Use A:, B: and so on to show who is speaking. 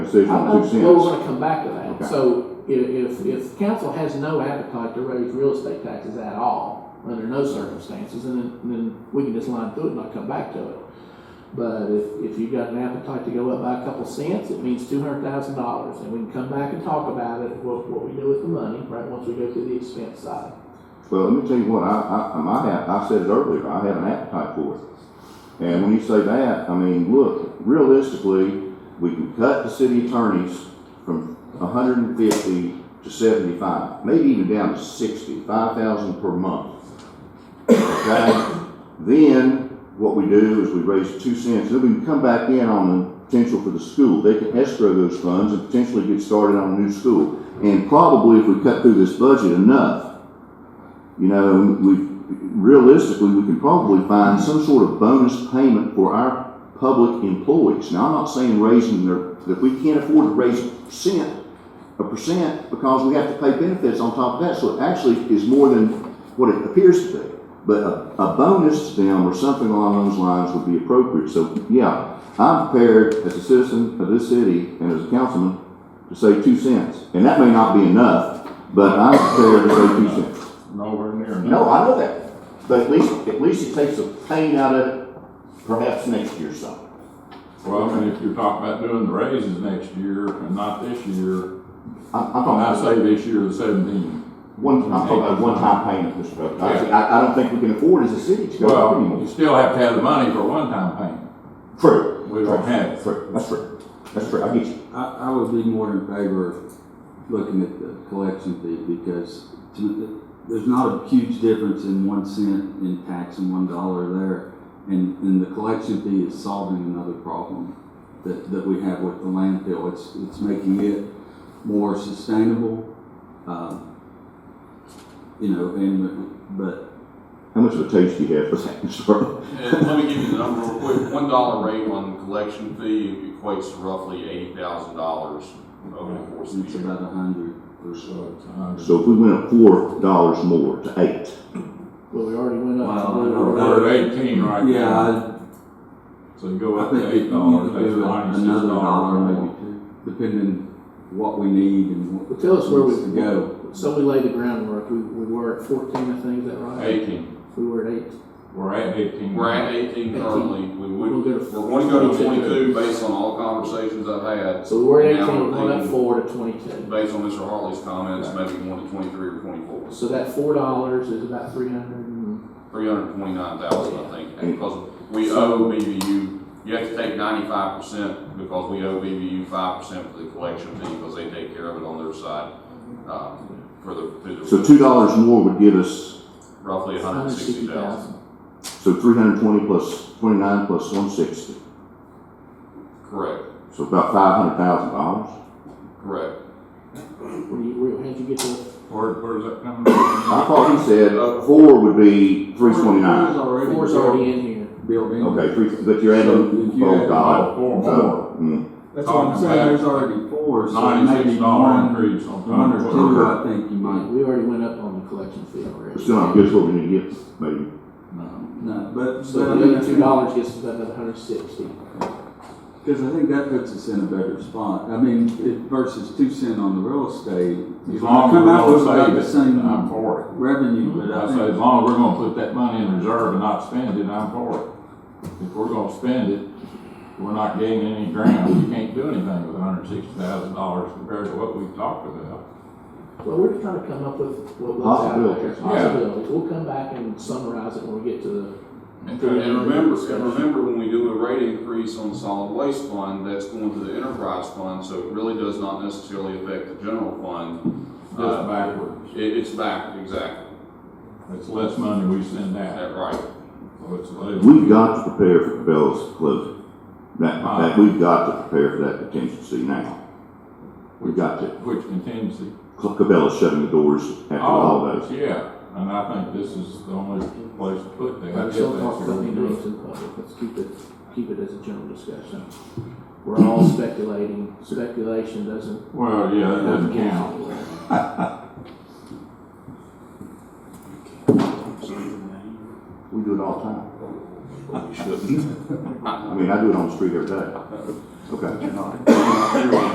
A: decision
B: I-
A: of two
B: I- Well, we're
A: cents.
B: gonna come back to that.
A: Okay.
B: So i- if, if council has no appetite to raise real estate taxes at all, under no circumstances, and then, then we can just line through it and not come back to it. But if, if you've got an appetite to go up by a couple cents, it means two hundred thousand dollars, and we can come back and talk about it, what, what we do with the money, right, once we go through the expense side.
A: Well, let me tell you what, I, I, um, I had, I said it earlier, I had an appetite for it. And when you say that, I mean, look, realistically, we can cut the city attorneys from hundred and fifty to seventy-five, maybe even down to sixty, five thousand per month. Okay? Then, what we do is we raise two cents, then we can come back in on the potential for the school. They can escrow those funds and potentially get started on a new school. And probably if we cut through this budget enough, you know, we, realistically, we can probably find some sort of bonus payment for our public employees. Now, I'm not saying raising their, that we can't afford to raise percent, a percent, because we have to pay benefits on top of that, so it actually is more than what it appears to be. But a, a bonus to them or something along those lines would be appropriate, so, yeah, I'm prepared as a citizen of this city and as a councilman to say two cents, and that may not be enough, but I'm prepared to say two cents.
C: Nowhere near enough.
A: No, I know that, but at least, at least it takes the pain out of it, perhaps next year something.
C: Well, I mean, if you're talking about doing the raises next year and not this year,
A: I'm, I'm
C: and
A: talking
C: I
A: about
C: say this year the seventeen.
A: one, I'm talking about one-time payment, Mr. President. I, I- I don't think we can afford as a city to go up
C: Well,
A: anymore.
C: you still have to have the money for one-time payment.
A: True.
C: We don't have it.
A: True, that's true, that's true, I get you.
D: I, I would be more in favor of looking at the collection fee because to, there's not a huge difference in one cent in tax and one dollar there. And, and the collection fee is solving another problem that, that we have with the landfill. It's, it's making it more sustainable. Um, you know, and, but
A: How much of a taste do you have for that, Mr. President?
E: And let me give you the number real quick. One dollar rate on collection fee equates to roughly eighty thousand dollars over the course of
D: it's
E: the year.
D: about a hundred or so.
C: So it's a hundred.
A: So if we went up four dollars more to eight,
B: Well, we already went up. to-
D: Wow, I know that.
C: We're at eighteen right now.
D: Yeah, I,
C: So you go
D: I
C: up to
D: think you
C: eight
D: need
C: dollars,
D: to
C: that's
D: do
C: ninety-six
D: another dollar, maybe
C: dollars.
D: two, depending what we need and what.
B: Well, tell us where we-
D: needs to Go.
B: So we laid the groundwork, we, we were at fourteen, I think, is that right?
C: Eighteen,
B: We were at eight.
C: we're at eighteen.
E: We're at eighteen currently. We
B: We'll
E: would,
B: go to.
E: we're going to go to twenty-two based on all conversations I've had.
B: So we're at
E: Now
B: eighteen, we're
E: we're
B: going up
E: thinking-
B: four to twenty-two.
E: Based on Mr. Hartley's comments, maybe one to twenty-three or twenty-four.
B: So that four dollars is about three hundred and,
E: Three hundred twenty-nine thousand, I think, because we owe BVU, you have to take ninety-five percent because we owe BVU five percent for the collection fee because they take care of it on their side, um, for the, through the.
A: so two dollars more would give us,
E: Roughly a hundred
B: hundred
E: and
B: and sixty
E: sixty thousand,
B: thousand.
A: so three hundred twenty plus, twenty-nine plus one sixty,
E: correct,
A: so about five hundred thousand dollars.
E: correct.
B: Where you, where, how'd you get to?
C: Where, where's that coming from?
A: I thought he said four would be three twenty-nine.
D: Four's already
B: Four's already in here.
D: Built in.
A: Okay, three, but you're adding,
D: So if you
A: oh
D: add
A: God.
C: Four more,
A: So, mm,
D: That's what I'm saying, there's already four, so maybe
C: ninety-six dollar
D: one,
C: increase on
D: one or
C: top of
D: two, I think you might.
B: We already went up on the collection fee already.
A: it's still not good for me to get, maybe.
C: No.
D: No, but, but I
B: So
D: mean,
B: the
D: I
B: other two
D: think-
B: dollars gets us another hundred and sixty.
D: Because I think that puts us in a better spot. I mean, it versus two cent on the real estate.
C: As long as
D: Come
C: we're
D: out with about
C: gonna
D: the
C: save it,
D: same
C: I'm for it.
D: revenue, but
C: I
D: I
C: say, as
D: think,
C: long as we're gonna put that money in reserve and not spend it, I'm for it. If we're gonna spend it, we're not gaining any ground, we can't do anything with hundred and sixty thousand dollars compared to what we've talked about.
B: Well, we're just trying to come up with what was out there.
A: Possibilities, yeah.
B: Possibilities. We'll come back and summarize it when we get to the
E: And remember, and remember when we do a rate increase on the solid waste fund, that's going to the enterprise fund, so it really does not necessarily affect the general fund.
C: That's backwards,
E: It, it's back, exactly,
C: it's less money we send out,
E: that right.
C: so it's less.
A: We've got to prepare for Cabela's closing. That, that, we've got to prepare for that contingency now. We've got to.
C: Which contingency?
A: Cabela's shutting the doors
C: Oh.
A: after all those.
C: Yeah, and I think this is the only place to put that.
B: Let's don't talk about any names in public, let's keep it, keep it as a general discussion. We're all speculating, speculation doesn't.
C: Well, yeah, that doesn't count.
A: We do it all the time. I mean, I do it on the street every day. Okay.